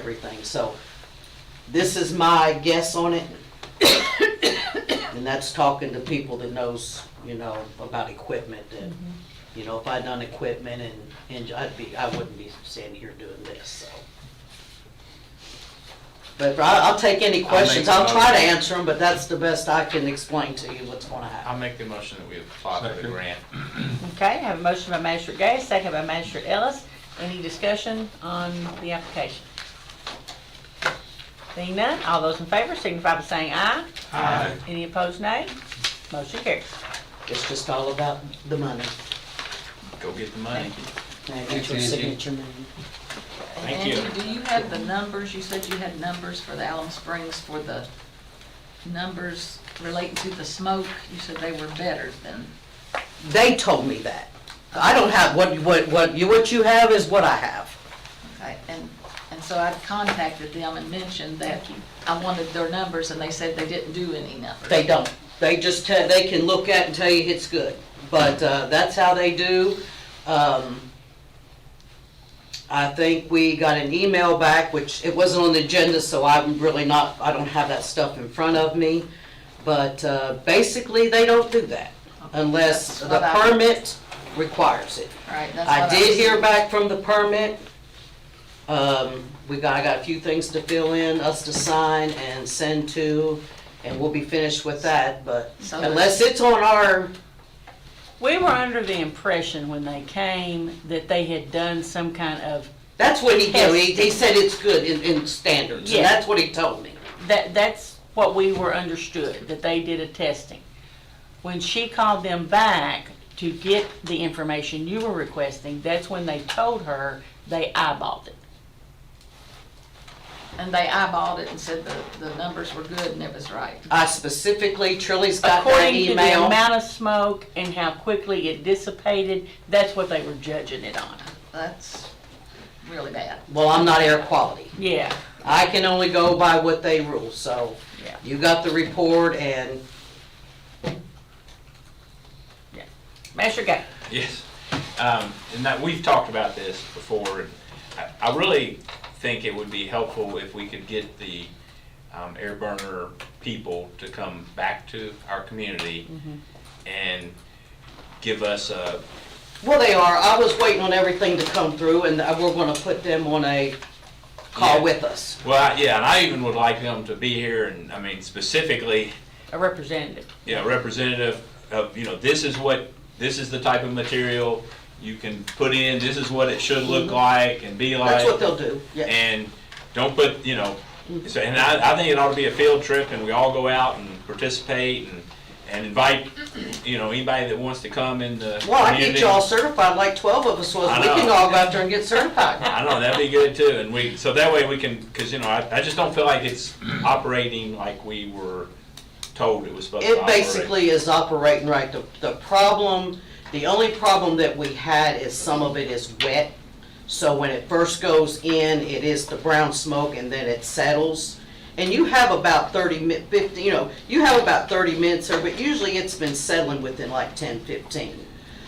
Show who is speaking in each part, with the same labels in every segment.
Speaker 1: everything, so this is my guess on it. And that's talking to people that knows, you know, about equipment and, you know, if I'd done equipment and, and I'd be, I wouldn't be standing here doing this, so. But I, I'll take any questions,
Speaker 2: I'll
Speaker 1: I'll
Speaker 2: make a
Speaker 1: try to
Speaker 2: motion.
Speaker 1: answer them, but that's the best I can explain to you what's gonna happen.
Speaker 2: I'll make the motion that we apply for the
Speaker 3: Second.
Speaker 2: grant.
Speaker 4: Okay, have a motion by Manager Gay, second by Manager Ellis. Any discussion on the application? Seeing none, all those in favor signify by saying aye.
Speaker 3: Aye.
Speaker 4: Any opposed, nay? Motion carries.
Speaker 1: It's just all about the money,
Speaker 2: Go get the money.
Speaker 1: and get your
Speaker 3: Thanks, Angie.
Speaker 1: signature money.
Speaker 2: Thank you.
Speaker 5: Angie, do you have the numbers? You said you had numbers for the Alum Springs for the numbers relating to the smoke. You said they were better than,
Speaker 1: They told me that. I don't have, what, what, what, you, what you have is what I have.
Speaker 5: okay, and, and so I contacted them and mentioned that I wanted their numbers, and they said they didn't do any numbers.
Speaker 1: They don't. They just tell, they can look at and tell you it's good. But, uh, that's how they do. Um, I think we got an email back, which it wasn't on the agenda, so I'm really not, I don't have that stuff in front of me. But, uh, basically, they don't do that unless
Speaker 5: That's
Speaker 1: the
Speaker 5: what I-
Speaker 1: permit requires it.
Speaker 5: All right, that's
Speaker 1: I
Speaker 5: what
Speaker 1: did hear
Speaker 5: was-
Speaker 1: back from the permit. Um, we got, I got a few things to fill in, us to sign and send to, and we'll be finished with that, but
Speaker 5: So there's-
Speaker 1: unless it's on our,
Speaker 4: We were under the impression when they came that they had done some kind of,
Speaker 1: that's what he gave, he, he said it's good in, in standards, and
Speaker 4: Yeah.
Speaker 1: that's what he told me.
Speaker 4: that, that's what we were understood, that they did a testing. When she called them back to get the information you were requesting, that's when they told her they eyeballed it.
Speaker 5: And they eyeballed it and said the, the numbers were good and it was right.
Speaker 1: I specifically, Trilly's got that
Speaker 4: According to the
Speaker 1: email.
Speaker 4: amount of smoke and how quickly it dissipated, that's what they were judging it on.
Speaker 5: That's really bad.
Speaker 1: Well, I'm not air quality.
Speaker 4: Yeah,
Speaker 1: I can only go by what they rule, so
Speaker 4: Yeah.
Speaker 1: you got the report and
Speaker 4: Master Gay.
Speaker 2: Yes. Um, and that, we've talked about this before, and I, I really think it would be helpful if we could get the, um, air burner people to come back to our community and give us a,
Speaker 1: Well, they are. I was waiting on everything to come through and I- we're gonna put them on a call
Speaker 2: Yeah.
Speaker 1: with us.
Speaker 2: well, I- yeah, and I even would like them to be here and, I mean, specifically,
Speaker 4: a representative.
Speaker 2: you know, representative of, you know, this is what, this is the type of material you can put in, this is what it should look like and be like.
Speaker 1: Mm-hmm. That's what they'll do, yeah.
Speaker 2: and don't put, you know, so, and I, I think it ought to be a field trip and we all go out and participate and, and invite, you know, anybody that wants to come in the
Speaker 1: Well, I get
Speaker 2: community.
Speaker 1: y'all certified, like twelve of us was.
Speaker 2: I
Speaker 1: We can
Speaker 2: know.
Speaker 1: all go out there and get certified.
Speaker 2: I know, that'd be good too, and we, so that way we can, cause you know, I, I just don't feel like it's operating like we were told it was supposed to
Speaker 1: It
Speaker 2: operate.
Speaker 1: basically is operating right. The, the problem, the only problem that we had is some of it is wet. So when it first goes in, it is the brown smoke and then it settles. And you have about thirty mi- fifty, you know, you have about thirty minutes there, but usually it's been settling within like ten, fifteen.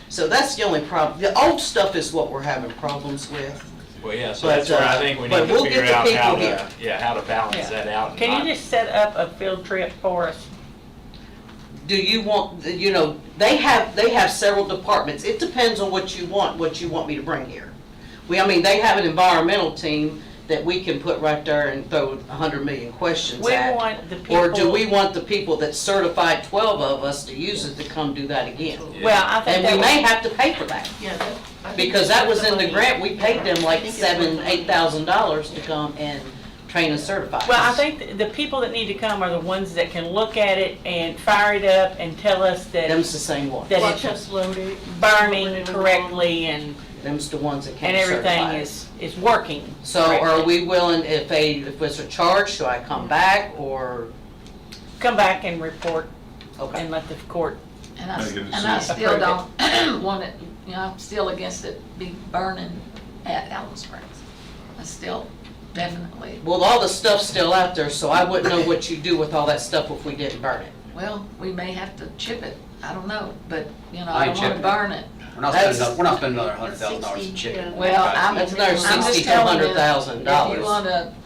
Speaker 1: So that's the only problem. The old stuff is what we're having problems with.
Speaker 2: Well, yeah, so
Speaker 1: But,
Speaker 2: that's where I
Speaker 1: uh,
Speaker 2: think we
Speaker 1: but
Speaker 2: need to
Speaker 1: we'll get
Speaker 2: figure
Speaker 1: the
Speaker 2: out how
Speaker 1: people here.
Speaker 2: to, yeah, how to balance
Speaker 4: Yeah.
Speaker 2: that out. and
Speaker 4: Can
Speaker 2: not-
Speaker 4: you just set up a field trip for us?
Speaker 1: do you want, you know, they have, they have several departments, it depends on what you want, what you want me to bring here. We, I mean, they have an environmental team that we can put right there and throw a hundred million questions
Speaker 4: We
Speaker 1: at.
Speaker 4: want the people.
Speaker 1: Or do we want the people that certified twelve of us to use it to come do that again?
Speaker 2: Yeah.
Speaker 4: Well, I think
Speaker 1: And we
Speaker 4: that
Speaker 1: may
Speaker 4: would,
Speaker 1: have to pay for that,
Speaker 5: Yeah.
Speaker 1: because that was in the grant, we paid them like seven, eight thousand dollars to come and train and certify.
Speaker 4: well, I
Speaker 1: us.
Speaker 4: think th- the people that need to come are the ones that can look at it and fire it up and tell us that,
Speaker 1: Them's the same ones,
Speaker 4: that
Speaker 6: Watch
Speaker 4: it's
Speaker 6: us load it.
Speaker 4: burning correctly and,
Speaker 1: them's the ones that
Speaker 4: and
Speaker 1: can't certify.
Speaker 4: everything
Speaker 1: it.
Speaker 4: is, is working.
Speaker 1: So are
Speaker 4: correctly.
Speaker 1: we willing, if they, if it's a charge, should I come back or,
Speaker 4: Come back and report
Speaker 1: okay,
Speaker 4: and let the court,
Speaker 5: And I,
Speaker 3: Make
Speaker 5: s-
Speaker 3: a
Speaker 5: and I
Speaker 4: decision.
Speaker 5: still don't want it, you know, I'm still against it be burning at Allen Springs. I still definitely,
Speaker 1: well, all the stuff's still out there, so I wouldn't know what you do with all that stuff if we didn't burn it.
Speaker 5: well, we may have to chip it, I don't know, but, you know, I
Speaker 7: I ain't
Speaker 5: don't wanna
Speaker 7: chipping it.
Speaker 5: burn it.
Speaker 7: We're not
Speaker 1: That's-
Speaker 7: spending, another- we're not spending another hundred thousand dollars in
Speaker 6: Sixty,
Speaker 7: chicken.
Speaker 6: yeah.
Speaker 5: Well, I'm, I'm
Speaker 1: That's
Speaker 5: just
Speaker 1: another
Speaker 5: telling you.
Speaker 1: sixty to hundred thousand
Speaker 5: If you
Speaker 1: dollars.
Speaker 5: wanna